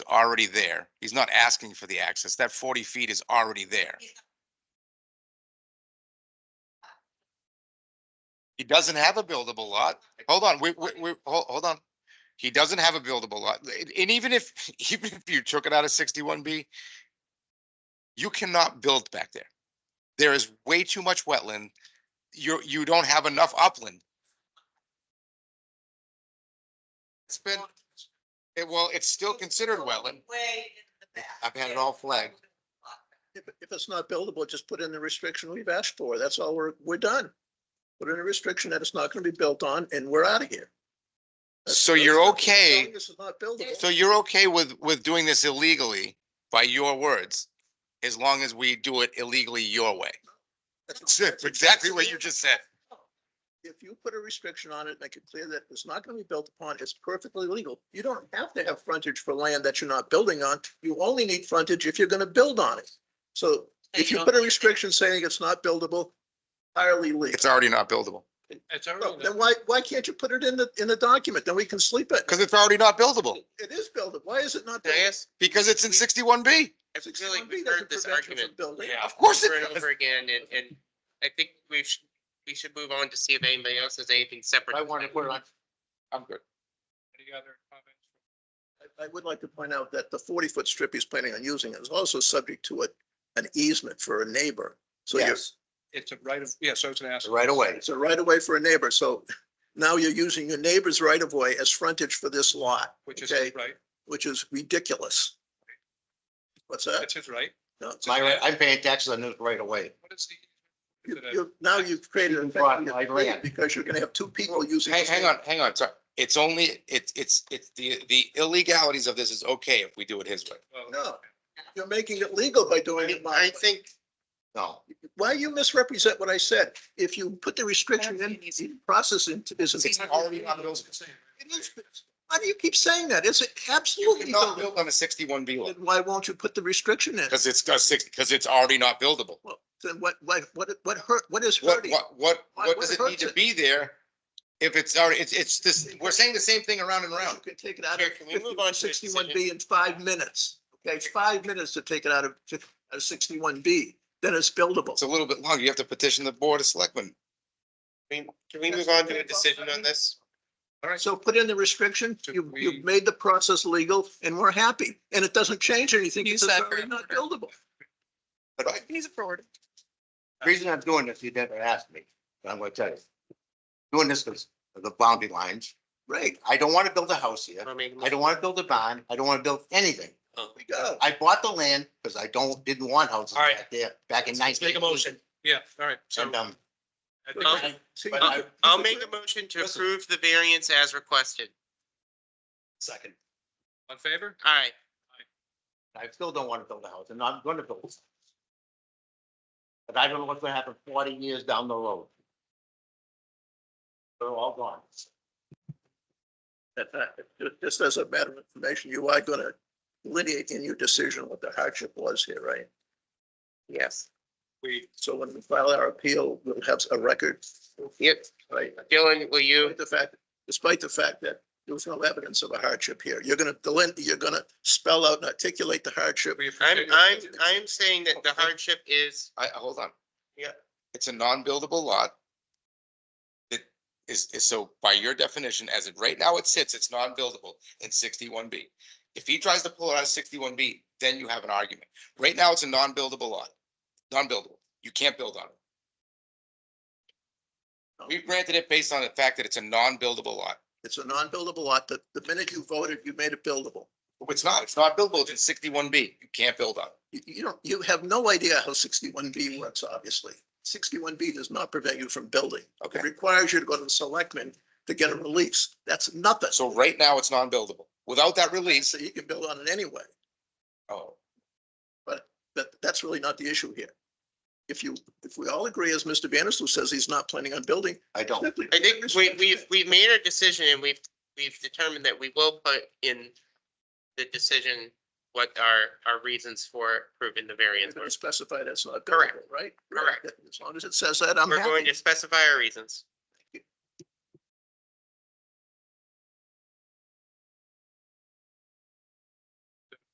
already there. He's not asking for the access. That forty feet is already there. He doesn't have a buildable lot. Hold on, we, we, we, hol- hold on. He doesn't have a buildable lot. And- And even if, even if you took it out of sixty-one B, you cannot build back there. There is way too much wetland. You, you don't have enough upland. It's been, it, well, it's still considered wetland. Way in the back. I've had it all flagged. If, if it's not buildable, just put in the restriction we've asked for. That's all we're, we're done. Put in a restriction that it's not gonna be built on and we're out of here. That's- So you're that's- okay- This is not buildable. So you're okay with, with doing this illegally, by your words, as long as we do it illegally your way? That's exactly what you just said. If you put a restriction on it, make it clear that it's not gonna be built upon, it's perfectly legal. You don't have to have frontage for land that you're not building on. You only need frontage if you're gonna build on it. So if you put a restriction saying it's not buildable, entirely legal. It's already not buildable, It's No, already, Then why, why can't you put it in the, in the document? Then we can sleep at. because it's already not buildable, It is buildable. Why is it not? Can I buildable? ask? because it's in sixty-one B. I feel like 61B we've doesn't heard this prevent you from argument building. Yeah. Of course over and it does. over again, and, and I think we should, we should move on to see if anybody else has anything separate. on. I'm good. any other comments? I- I would like to point out that the forty foot strip he's planning on using is also subject to a, an easement for a neighbor. So you're, Yes. It's a right of, yeah, so it's an ask. Right away. it's a right of way for a neighbor. So now you're using your neighbor's right of way as frontage for this lot, which is Okay. his right, which is ridiculous. What's that? that's his right. No, My, right- I'm paying taxes on this right away. What is the? you- you- Now you've created an Brought my land. because you're gonna have two people using. Hang, the hang same- on, hang on, sorry. It's only, it's, it's, it's the, the illegalities of this is okay if we do it his way. Well, No, you're making it legal by doing I it. my I way. think, No, Why you misrepresent what I said? If you put the restriction in, the process into is. It's already not buildable. Why do you keep saying that? It's You absolutely cannot buildable. build on a sixty-one B lot, Then why won't you put the restriction in? because it's, because it's already not buildable. Well, Then what, what, what, what hurt, what is What, hurting? what, what, Why- what what does it need hurts to it? be there if it's already, it's, it's this, we're saying the same thing around and around. You can take it out Chair, can we move on of to this sixty-one B in five minutes. Okay, five minutes to take it out of sixty-one B, then it's buildable. It's a little bit longer. You have to petition the board of selectmen. can we move on to a decision on this? So put in the restriction, Should you, we- you've made the process legal and we're happy. And it doesn't change anything. Use because It's that for already not buildable. He's a forward. the reason I'm doing this, you never asked me, but I'm gonna tell you. Doing this because of the boundary lines. Right, I don't want to build a house here. I mean, I don't want to build a barn. I don't want to build anything. we go. I bought the land because I don't, didn't want houses All right. back there, back in nineteen. Make a motion. Yeah, all right, so. And, um, I think- I'll- See, But I'll- I- I'll make a motion to approve the variance as requested. Second. On favor? All right, I still don't want to build a house and I'm gonna build. But I don't know what's gonna happen forty years down the road. They're all gone. that- that- Just as a matter of information, you are gonna delineate in your decision what the hardship was here, right? yes. We, So when we file our appeal, we'll have a record, Yep, right? Dylan, will you? Despite the fact, despite the fact that there was no evidence of a hardship here, you're gonna delin, you're gonna spell out and articulate the hardship. we I'm, appreciate I'm, I'm saying that the hardship is, I, I- hold on. Yeah. It's a non-buildable lot. It is, is so by your definition, as it right now it sits, it's non-buildable in sixty-one B. If he tries to pull it out of sixty-one B, then you have an argument. Right now, it's a non-buildable lot, non-buildable. You can't build on it. We've granted it based on the fact that it's a non-buildable lot. It's a non-buildable lot. The, the minute you voted, you made it buildable. It's not, it's not buildable. It's in sixty-one B. You can't build on it. You, you don't, you have no idea how sixty-one B works, obviously. Sixty-one B does not prevent you from building. Okay. It requires you to go to the selectmen to get a release. That's nothing. So right now, it's non-buildable. Without that release, So you can build on it anyway, oh, but that's really not the issue here. If you, if we all agree, as Mr. Vandersloot says, he's not planning on building. I don't. simply- I think we, we've, we've made our decision and we've, we've determined that we will put in the decision what our, our reasons for approving the You're variance were. gonna Specify that's not Correct. buildable, right? Correct. As long as it says that, I'm We're going happy. to specify our reasons.